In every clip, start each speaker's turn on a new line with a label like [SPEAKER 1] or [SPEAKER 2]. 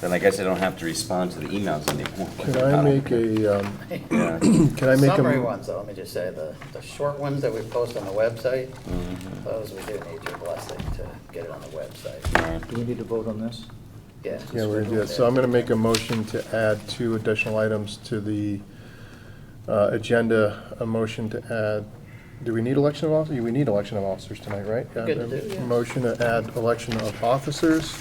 [SPEAKER 1] then I guess I don't have to respond to the emails anymore.
[SPEAKER 2] Can I make a, um,
[SPEAKER 1] Yeah.
[SPEAKER 2] can I make a?
[SPEAKER 3] Summary ones, though, let me just say, the, the short ones that we post on the website,
[SPEAKER 1] Mm-hmm.
[SPEAKER 3] those we do need your blessing to get it on the website.
[SPEAKER 4] Do we need to vote on this?
[SPEAKER 3] Yeah.
[SPEAKER 2] Yeah, we're gonna do that. So I'm gonna make a motion to add two additional items to the uh, agenda. A motion to add, do we need election of officers? We need election of officers tonight, right?
[SPEAKER 3] Good to do.
[SPEAKER 2] A Motion to add election of officers,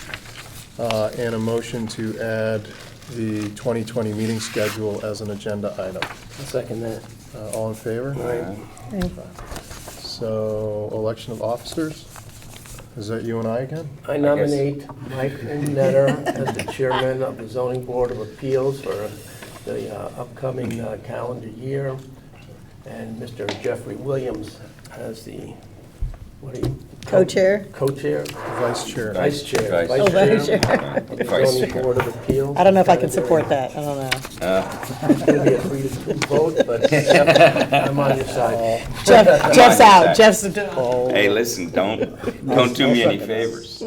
[SPEAKER 2] uh, and a motion to add the 2020 meeting schedule as an agenda item.
[SPEAKER 5] Second that.
[SPEAKER 2] Uh, All in favor? So, election of officers? Is that you and I again?
[SPEAKER 5] I nominate Mike Netter as the chairman of the zoning board of appeals for the uh, upcoming uh, calendar year, and Mr. Jeffrey Williams as the, what do you?
[SPEAKER 6] Co-chair? Oh,
[SPEAKER 5] Co-chair,
[SPEAKER 2] Vice chair.
[SPEAKER 5] vice chair.
[SPEAKER 1] Vice
[SPEAKER 6] Vice chair.
[SPEAKER 5] of the
[SPEAKER 1] Vice
[SPEAKER 5] zoning
[SPEAKER 1] chair.
[SPEAKER 5] board of appeals.
[SPEAKER 6] I don't know if I can support that, I don't know.
[SPEAKER 5] It's going to be a three to two vote, but I'm on your side.
[SPEAKER 6] Jeff, Jeff's out, Jeff's,
[SPEAKER 1] Hey, listen, don't, don't do me any favors.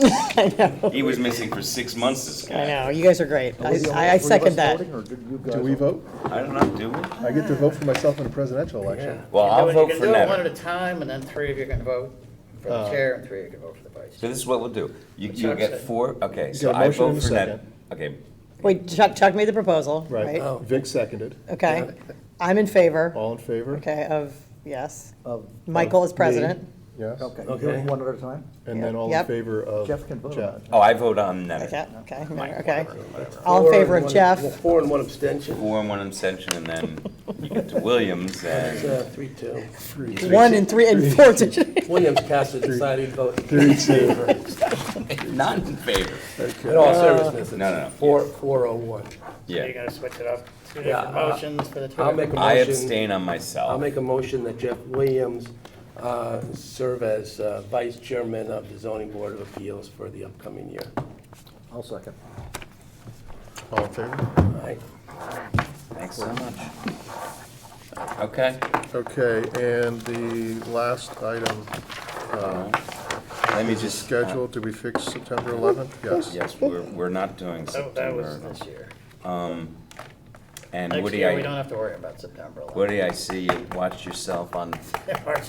[SPEAKER 1] He was missing for six months, this
[SPEAKER 6] I
[SPEAKER 1] guy.
[SPEAKER 6] know, you guys are great. I, I- I second that.
[SPEAKER 2] Do we vote?
[SPEAKER 1] I don't know, do we?
[SPEAKER 2] I get to vote for myself in a presidential election.
[SPEAKER 1] Well, I'll vote for
[SPEAKER 3] You can do it one at
[SPEAKER 1] Netter.
[SPEAKER 3] a time, and then three of you can vote for
[SPEAKER 4] Uh.
[SPEAKER 3] the chair, and three of you can vote for the vice.
[SPEAKER 1] So this is what we'll do. You,
[SPEAKER 3] That's what
[SPEAKER 1] you
[SPEAKER 3] I'm
[SPEAKER 1] get
[SPEAKER 3] saying.
[SPEAKER 1] four, okay,
[SPEAKER 2] You
[SPEAKER 1] so
[SPEAKER 2] got a
[SPEAKER 1] I
[SPEAKER 2] motion
[SPEAKER 1] vote
[SPEAKER 2] and a
[SPEAKER 1] for Netter.
[SPEAKER 2] second.
[SPEAKER 1] Okay,
[SPEAKER 6] Wait, Chuck, Chuck made the proposal,
[SPEAKER 2] Right. Oh,
[SPEAKER 6] right?
[SPEAKER 2] Vic seconded.
[SPEAKER 6] Okay, I'm in favor,
[SPEAKER 2] All in favor?
[SPEAKER 6] okay, of, yes.
[SPEAKER 4] Of-
[SPEAKER 6] Michael is president.
[SPEAKER 2] Yes?
[SPEAKER 4] Okay, you're doing one at a time?
[SPEAKER 2] And then all in
[SPEAKER 6] Yep.
[SPEAKER 2] favor of
[SPEAKER 4] Jeff can vote on
[SPEAKER 2] Chad?
[SPEAKER 4] it.
[SPEAKER 1] oh, I vote on Netter.
[SPEAKER 6] Okay, okay, okay.
[SPEAKER 1] whatever.
[SPEAKER 6] All in favor
[SPEAKER 5] Four
[SPEAKER 6] of
[SPEAKER 5] and one-
[SPEAKER 6] Jeff,
[SPEAKER 5] Four and one abstention,
[SPEAKER 1] Four and one abstention, and then you get to Williams,
[SPEAKER 5] It's,
[SPEAKER 1] and
[SPEAKER 5] uh, three, two.
[SPEAKER 6] one and three and four to,
[SPEAKER 5] Williams cast a deciding vote in
[SPEAKER 2] Three, two.
[SPEAKER 5] favor.
[SPEAKER 1] not in favor.
[SPEAKER 5] In all seriousness,
[SPEAKER 1] No, no, no.
[SPEAKER 5] it's four, four oh one.
[SPEAKER 3] You're
[SPEAKER 1] Yeah.
[SPEAKER 3] gonna switch it up, two
[SPEAKER 5] Yeah,
[SPEAKER 3] different
[SPEAKER 5] uh,
[SPEAKER 3] motions for the two.
[SPEAKER 5] I'll
[SPEAKER 3] of you.
[SPEAKER 5] make a
[SPEAKER 1] I
[SPEAKER 5] motion,
[SPEAKER 1] abstain on
[SPEAKER 5] I'll
[SPEAKER 1] myself.
[SPEAKER 5] make a motion that Jeff Williams uh, serve as uh, vice chairman of the zoning board of appeals for the upcoming year.
[SPEAKER 4] I'll second.
[SPEAKER 2] All in favor?
[SPEAKER 5] All right?
[SPEAKER 1] Thanks so much. Okay,
[SPEAKER 2] Okay, and the last item,
[SPEAKER 1] Uh, let me just. uh,
[SPEAKER 2] schedule, did we fix September 11th? Yes.
[SPEAKER 1] Yes, we're, we're not doing
[SPEAKER 3] So that was
[SPEAKER 1] September.
[SPEAKER 3] this year.
[SPEAKER 1] And
[SPEAKER 3] Next
[SPEAKER 1] Woody,
[SPEAKER 3] year, we don't
[SPEAKER 1] I,
[SPEAKER 3] have to worry about September. 11th.
[SPEAKER 1] Woody, I see you watched yourself on March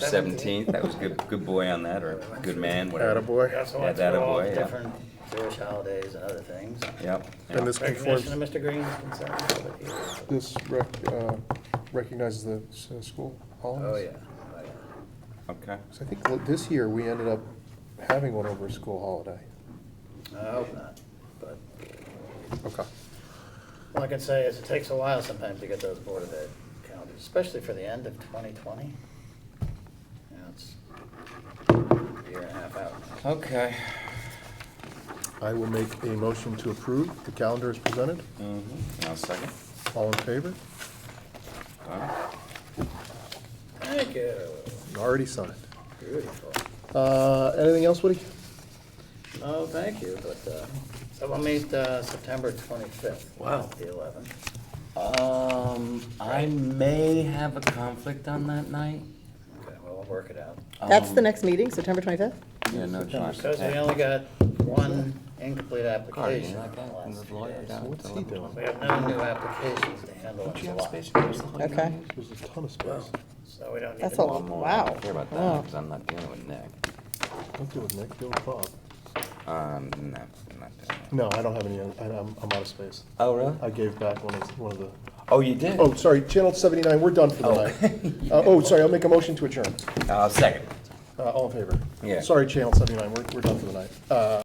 [SPEAKER 1] 17th. That was good, good boy on that, or good man, whatever.
[SPEAKER 3] We
[SPEAKER 2] Attaboy.
[SPEAKER 3] also
[SPEAKER 1] Yeah,
[SPEAKER 3] went
[SPEAKER 1] that
[SPEAKER 3] through all
[SPEAKER 1] a
[SPEAKER 3] the
[SPEAKER 1] boy, yeah.
[SPEAKER 3] different Jewish holidays and other things.
[SPEAKER 1] Yep.
[SPEAKER 2] And this
[SPEAKER 3] Recognition
[SPEAKER 2] conforms,
[SPEAKER 3] of Mr. Green's concern.
[SPEAKER 2] this rec- uh, recognizes the s- uh, school
[SPEAKER 3] Oh,
[SPEAKER 2] holidays?
[SPEAKER 3] yeah. Oh, yeah.
[SPEAKER 1] yeah. Okay.
[SPEAKER 2] So I think l- this year, we ended up having one over a school holiday.
[SPEAKER 3] I hope not, but
[SPEAKER 2] Okay.
[SPEAKER 3] all I can say is it takes a while sometimes to get those Board of Ed calendars, especially for the end of 2020. You know, it's a year and a half out.
[SPEAKER 1] Okay.
[SPEAKER 2] I will make a motion to approve. The calendar is presented.
[SPEAKER 1] Mhm. I'll second.
[SPEAKER 2] All in favor?
[SPEAKER 1] Done.
[SPEAKER 3] Thank you.
[SPEAKER 2] Already signed.
[SPEAKER 3] Beautiful.
[SPEAKER 2] Uh, Anything else, Woody?
[SPEAKER 3] Oh, thank you, but, uh, so we'll meet uh, September 25th.
[SPEAKER 5] Wow.
[SPEAKER 3] The 11th.
[SPEAKER 1] Um, I may have a conflict on that night.
[SPEAKER 3] Okay, well, we'll work it out.
[SPEAKER 6] that's the
[SPEAKER 1] Um,
[SPEAKER 6] next meeting, September 25th?
[SPEAKER 1] Yeah, no, John.
[SPEAKER 3] Because we only got one incomplete
[SPEAKER 1] Cardi,
[SPEAKER 3] application
[SPEAKER 1] you like
[SPEAKER 3] in the
[SPEAKER 1] that? And
[SPEAKER 3] last
[SPEAKER 1] the
[SPEAKER 3] few
[SPEAKER 1] lawyer
[SPEAKER 3] days.
[SPEAKER 1] down
[SPEAKER 2] What's
[SPEAKER 1] to
[SPEAKER 2] he
[SPEAKER 1] the-
[SPEAKER 2] doing?
[SPEAKER 3] We have no new applications to handle in July,
[SPEAKER 1] Space Force, the whole
[SPEAKER 6] Okay.
[SPEAKER 1] union.
[SPEAKER 2] There's a ton of space.
[SPEAKER 3] so we don't need
[SPEAKER 6] That's
[SPEAKER 3] to.
[SPEAKER 6] a
[SPEAKER 1] One
[SPEAKER 6] lot.
[SPEAKER 1] more. I don't
[SPEAKER 6] Wow.
[SPEAKER 1] care about
[SPEAKER 6] Wow.
[SPEAKER 1] that because I'm not dealing with Nick.
[SPEAKER 2] Don't do it, Nick. Deal with Bob.
[SPEAKER 1] Um, no, I'm not doing that.
[SPEAKER 2] No, I don't have any, I- I'm, I'm out of space.
[SPEAKER 1] Oh, really?
[SPEAKER 2] I gave back one of, one of the,
[SPEAKER 1] Oh, you did?
[SPEAKER 2] oh, sorry, Channel 79, we're done for the night. Uh, Oh, sorry, I'll make a motion to adjourn.
[SPEAKER 1] Uh, second.
[SPEAKER 2] Uh, All in favor?
[SPEAKER 1] Yeah.
[SPEAKER 2] Sorry, Channel 79, we're, we're done for the night. Uh,